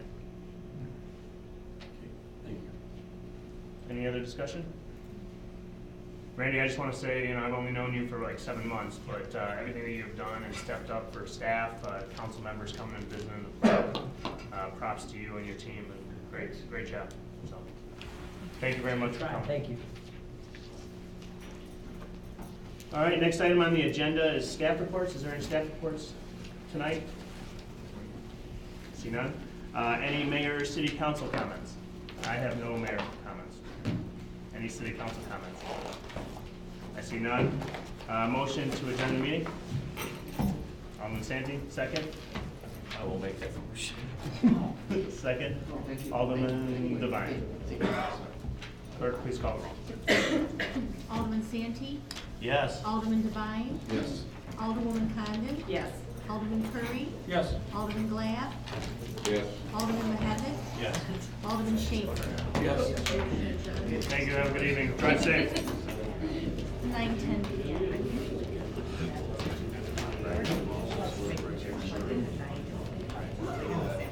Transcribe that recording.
Any other discussion? Randy, I just want to say, you know, I've only known you for like seven months, but uh, everything that you've done and stepped up for staff, uh, council members coming and visiting the club, uh, props to you and your team, and great, great job. So, Thank you very much for coming. Thank you. All right, next item on the agenda is staff reports. Is there any staff reports tonight? See none? Uh, Any mayor or city council comments? I have no mayor comments. Any city council comments? I see none. Uh, Motion to adjourn the meeting? Alderman Santi, second? I will make that motion. Second? Alderman Devine. Clerk, please call the roll. Alderman Santee, Yes. Alderman Devine, Yes. Alderwoman Condon, Yes. Alderman Curry, Yes. Alderman Glab, Yes. Alderman Mahavis, Yes. Alderman Schaper. Yes. Thank you, have a good evening. Drive safe. Nine ten.